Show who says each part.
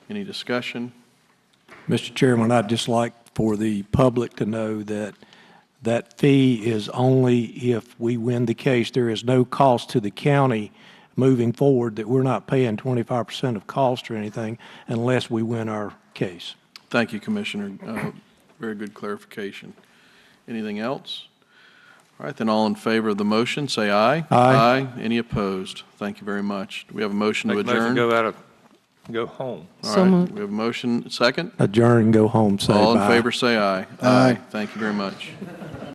Speaker 1: Any discussion?
Speaker 2: Mr. Chairman, I'd just like for the public to know that that fee is only if we win the case. There is no cost to the county moving forward, that we're not paying 25% of cost or anything unless we win our case.
Speaker 1: Thank you, Commissioner. Uh, Very good clarification. Anything else? All right, then all in favor of the motion, say aye.
Speaker 2: Aye.
Speaker 1: Any opposed? Thank you very much. Do we have a motion to
Speaker 3: Make a
Speaker 1: adjourn?
Speaker 3: motion, go out of, go home.
Speaker 1: All
Speaker 4: So
Speaker 1: right,
Speaker 4: moved.
Speaker 1: we have a motion, second?
Speaker 2: Adjourn and go home, say
Speaker 1: All in
Speaker 2: bye.
Speaker 1: favor, say aye. Aye. Thank you very much.